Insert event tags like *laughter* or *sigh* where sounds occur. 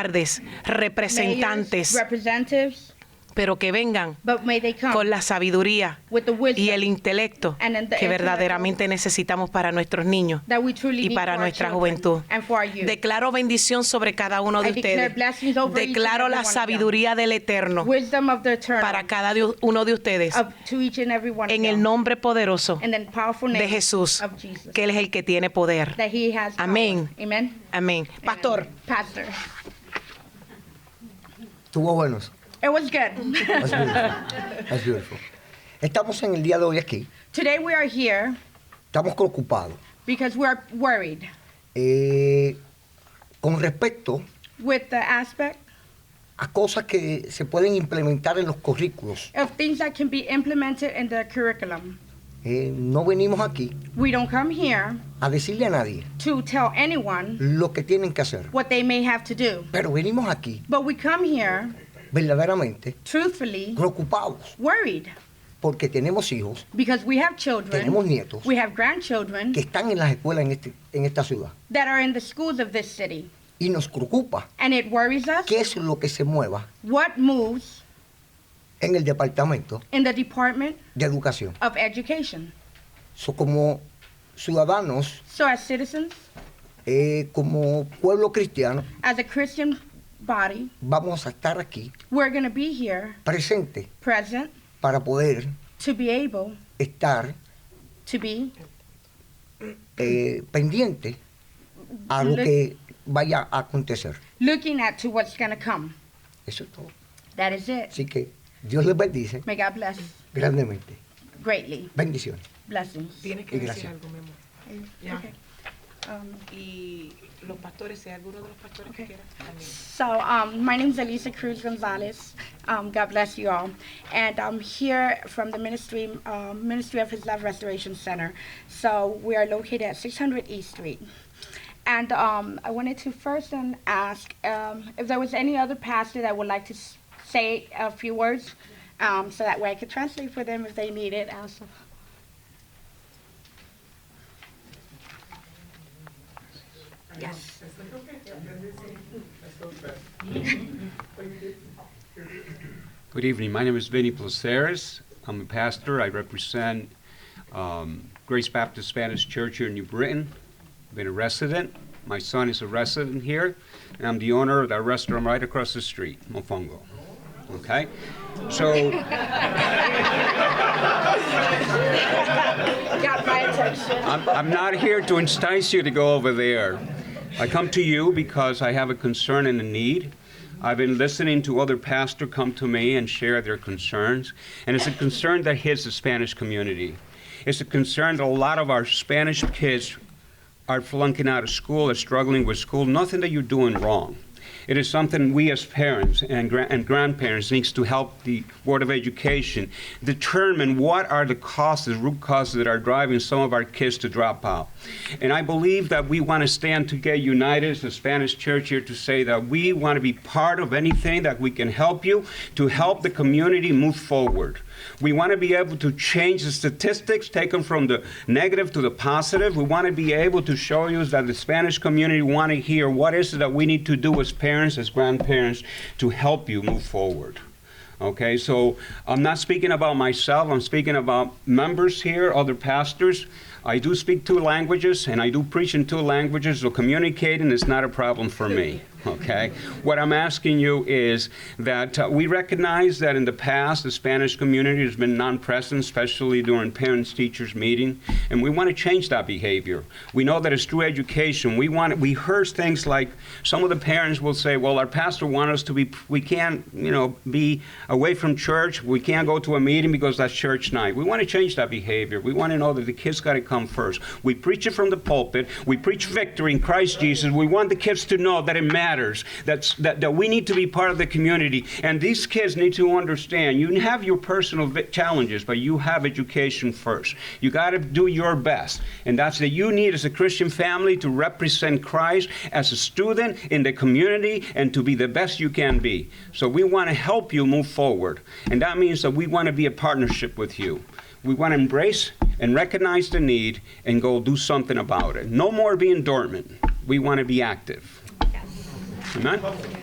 alcaldes, representantes, mayors, representatives, pero que vengan but may they come con la sabiduría with the wisdom y el intelecto and the que intellect verdaderamente necesitamos para nuestros niños that we truly y need para for our nuestra children juventud. and for our youth. Declaro bendición sobre cada uno de I declare ustedes. blessings over each and Declaro every la one of them. sabiduría del Eterno Wisdom of the eternal para cada di- uno de ustedes of, to each and every one en of el them. nombre poderoso And then powerful de name Jesús, of Jesus. que Él es el que tiene poder. that he has power. Amén. Amen. Amén. Pastor, Amen. Pastor. Estuvo buenos. It was good. *laughs* That's beautiful. That's beautiful. Estamos en el día de hoy aquí. Today we are here Estamos preocupados because we are worried eh, con respecto with the aspect a cosas que se pueden implementar en los currículos. of things that can be implemented in the curriculum. Eh, no venimos aquí We don't come here a decirle a nadie to tell anyone lo que tienen que hacer, what they may have to do, pero venimos aquí but we come here verdaderamente truthfully preocupados worried porque tenemos hijos because we have children, Tenemos nietos. we have grandchildren que están en las escuelas en, este, en esta ciudad that are in the schools of this city. y nos preocupa And it worries us qué es lo que se mueva what moves en el departamento in the Department de educación. of Education. So, como ciudadanos So, as citizens, Eh, como pueblo cristiano, as a Christian body, vamos a estar aquí we're going to be here presente present para poder to be able estar to be eh, pendiente a lo que vaya a acontecer. looking at to what's going to come. Eso es todo. That is it. Así que Dios les bendice May God bless grandemente. greatly. Bendiciones. Blessings. Tienes Y que decir gracias. algo, mi amor. Ya. Okay. Um, Y los pastores, si hay alguno de los pastores Okay. que quiera. Amén. So, um, my name is Elisa Cruz Gonzalez. Um, God bless you all. And I'm here from the Ministry um, Ministry of His Love Restoration Center. So, we are located at 600 East Street. And um, I wanted to first um, ask um, if there was any other pastor that would like to s- say a few words um, so that way I could translate for them if they need it. Also. Yes. Good evening. My name is Vinny Placeres. I'm a pastor. I represent um, Grace Baptist Spanish Church here in New Britain. I've been a resident. My son is a resident here, and I'm the owner of that restaurant right across the street, Mofongo. Okay? So, Got my attention. I'm, I'm not here to entice you to go over there. I come to you because I have a concern and a need. I've been listening to other pastors come to me and share their concerns, and it's a concern that hits the Spanish community. It's a concern that a lot of our Spanish kids are flunking out of school, are struggling with school. Nothing that you're doing wrong. It is something we as parents and, gra- and grandparents needs to help the Board of Education determine what are the causes, root causes that are driving some of our kids to drop out. And I believe that we want to stand together united as the Spanish church here to say that we want to be part of anything that we can help you to help the community move forward. We want to be able to change the statistics, take them from the negative to the positive. We want to be able to show you that the Spanish community want to hear what is it that we need to do as parents, as grandparents, to help you move forward. Okay, so I'm not speaking about myself, I'm speaking about members here, other pastors. I do speak two languages and I do preach in two languages, so communicating is not a problem for me. Okay? What I'm asking you is that uh, we recognize that in the past the Spanish community has been non present, especially during parents teachers meeting, and we want to change that behavior. We know that it's through education. We want we heard things like some of the parents will say, "Well, our pastor wants us to be we can't, you know, be away from church. We can't go to a meeting because that's church night." We want to change that behavior. We want to know that the kids got to come first. We preach it from the pulpit. We preach victory in Christ Jesus. We want the kids to know that it matters. That's that, that we need to be part of the community and these kids need to understand you have your personal vi- challenges, but you have education first. You got to do your best. And that's that you need as a Christian family to represent Christ as a student in the community and to be the best you can be. So we want to help you move forward. And that means that we want to be a partnership with you. We want to embrace and recognize the need and go do something about it. No more being dormant. We want to be active. Amen?